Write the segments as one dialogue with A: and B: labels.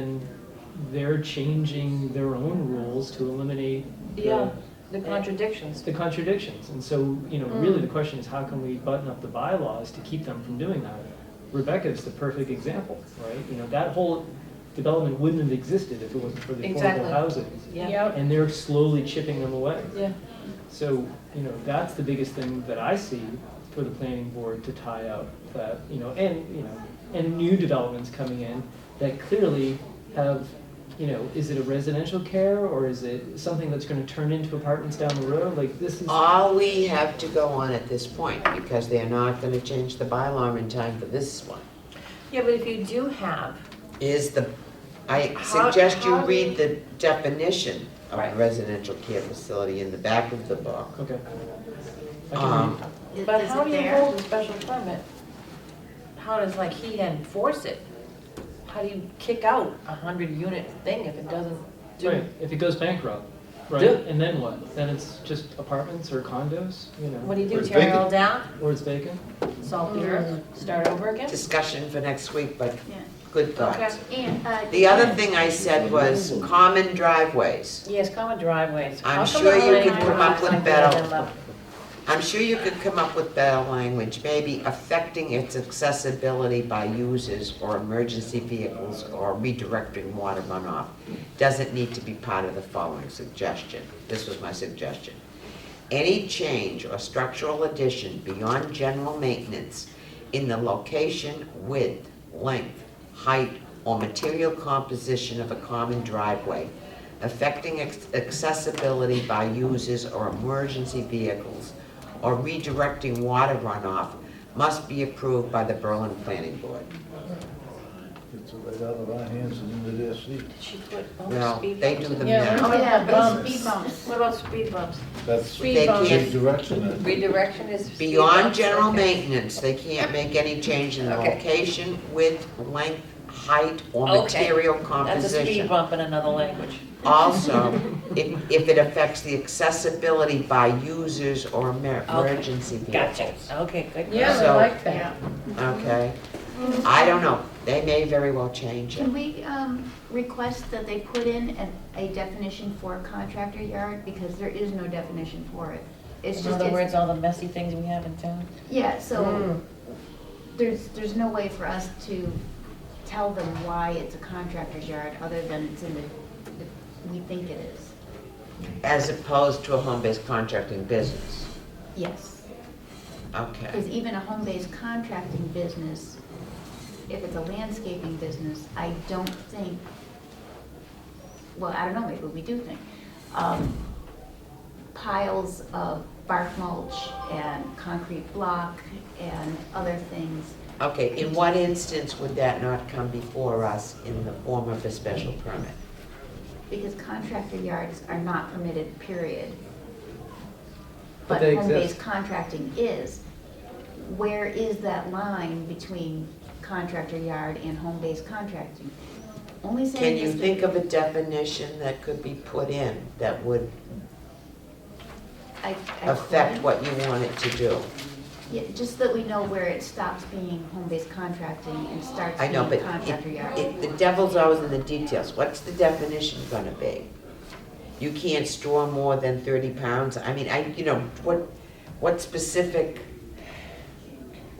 A: And they're changing their own rules to eliminate the-
B: Yeah, the contradictions.
A: the contradictions. And so, you know, really the
B: Mm.
A: question is how can we button up the bylaws to keep them from doing that? Rebecca is the perfect example, right? You know, that whole development wouldn't have existed if it wasn't for the
B: Exactly.
A: affordable housing.
B: Yeah,
A: And they're slowly chipping them away.
B: yeah.
A: So, you know, that's the biggest thing that I see for the planning board to tie up that, you know, and, you know, and new developments coming in that clearly have, you know, is it a residential care or is it something that's gonna turn into apartments down the road? Like this is,
C: All we have to go on at this point, because they're not gonna change the bylaw in time for this one,
B: Yeah, but if you do have,
C: is the, I
B: How-
C: suggest you
B: how do
C: read the definition of
B: Right.
C: residential care facility in the back of the book.
A: okay. I can
C: Um,
A: read,
B: but how do you hold a special permit? How does like he enforce it? How do you kick out a hundred unit thing if it doesn't
A: right,
B: do?
A: if it goes bankrupt, right,
B: Do-
A: and then what? Then it's just apartments or condos, you know,
B: What do you do,
D: It's
B: tear it
D: vacant.
B: all down,
A: or it's vacant?
B: salt the earth, start over again?
C: Discussion for next week, but
E: Yeah.
C: good
B: Okay.
C: thoughts.
E: And, uh.
C: The other thing I said was common driveways.
B: Yes, common driveways.
C: I'm
B: How come
C: sure
B: the
C: you
B: lighting
E: could come
B: drives
C: up with
B: like that
C: better.
B: and love-
C: I'm sure you could come up with better language, maybe affecting its accessibility by users or emergency vehicles or redirecting water runoff. Doesn't need to be part of the following suggestion. This was my suggestion. Any change or structural addition beyond general maintenance in the location, width, length, height, or material composition of a common driveway affecting ac- accessibility by users or emergency vehicles or redirecting water runoff must be approved by the Berlin Planning Board.
D: It's right out of our hands and into their seat.
B: She put bumps,
C: Well,
B: speed
C: they
B: bumps
C: do
B: in
C: the
B: there.
C: minimum.
B: How about oh, bumps?
E: Speed bumps.
B: What about speed bumps?
D: That's
B: Speed
C: They
B: bumps.
C: can't-
D: redirection. I think.
B: Redirection is. speed
C: Beyond
B: bumps,
C: general
B: okay.
C: maintenance, they can't make any change in the
B: Okay.
C: location, width, length, height, or
B: Okay.
C: material
B: That's a speed
C: composition.
B: bump in another language.
C: Also, if, if it affects the accessibility by users or emer-
B: Okay.
C: emergency vehicles.
B: Gotcha. Okay, good.
C: Yeah, I So- like
E: Yeah.
C: Okay, I don't know, they may very well change it.
E: Can we, um, request that they put in a, a definition for contractor yard, because there is no definition for it. It's
B: In
E: just,
B: other
E: it's,
B: words, all the messy things we have in town.
E: yeah, so
B: Hmm.
E: there's, there's no way for us to tell them why it's a contractor's yard, other than it's in the, the- we think it is.
C: As opposed to a home-based contracting business,
E: Yes,
C: okay.
E: because even a home-based contracting business, if it's a landscaping business, I don't think, well, I don't know, maybe we do think, um, piles of bark mulch and concrete block and other things.
C: Okay, in what instance would that not come before us in the form of a special permit?
E: Because contractor yards are not permitted, period.
A: But
E: But
A: they
E: home-based
A: exist.
E: contracting is. Where is that line between contractor yard and home-based contracting? Only
C: Can
E: saying
C: you
E: is.
C: think of a definition that could be put in that would
E: I- I
C: affect
E: couldn't.
C: what you want it to do?
E: Yeah, just that we know where it stops being home-based contracting and starts
C: I
E: being
C: know, but
E: contractor
C: it-
E: yard.
C: it- the devil's always in the details. What's the definition gonna be? You can't store more than thirty pounds? I mean, I, you know, what, what specific?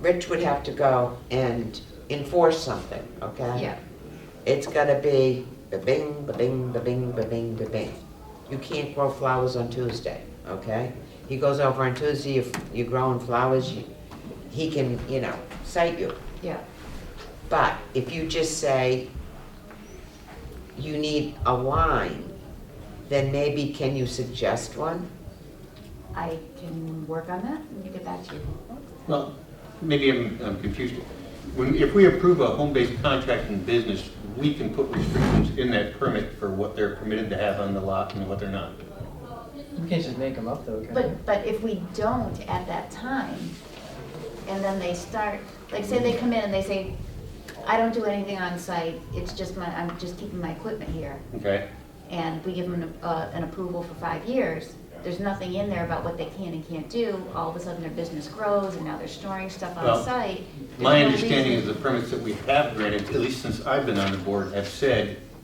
C: Rich would have to go and enforce something, okay?
E: Yeah,
C: It's gotta be ba-bing, ba-bing, ba-bing, ba-bing, ba-bing. You can't grow flowers on Tuesday, okay? He goes over on Tuesday, you you're growing flowers, you- he can, you know, cite you.
E: yeah,
C: But if you just say you need a line, then maybe can you suggest one?
E: I can work on that and get back to you.
F: Well, maybe I'm I'm confused. When, if we approve a home-based contracting business, we can put restrictions in that permit for what they're permitted to have on the lot and what they're not.
A: You can't just make them up though, can you?
E: But, but if we don't at that time, and then they start, like, say they come in and they say, I don't do anything on site, it's just my, I'm just keeping my equipment here,
F: Okay?
E: and we give them an, uh, an approval for five years, there's nothing in there about what they can and can't do, all of a sudden their business grows, and now they're storing stuff on
F: Well,
E: site.
F: My
E: There's no
F: understanding is
E: reason-
F: the permits that we have granted, at least since I've been on the board, have said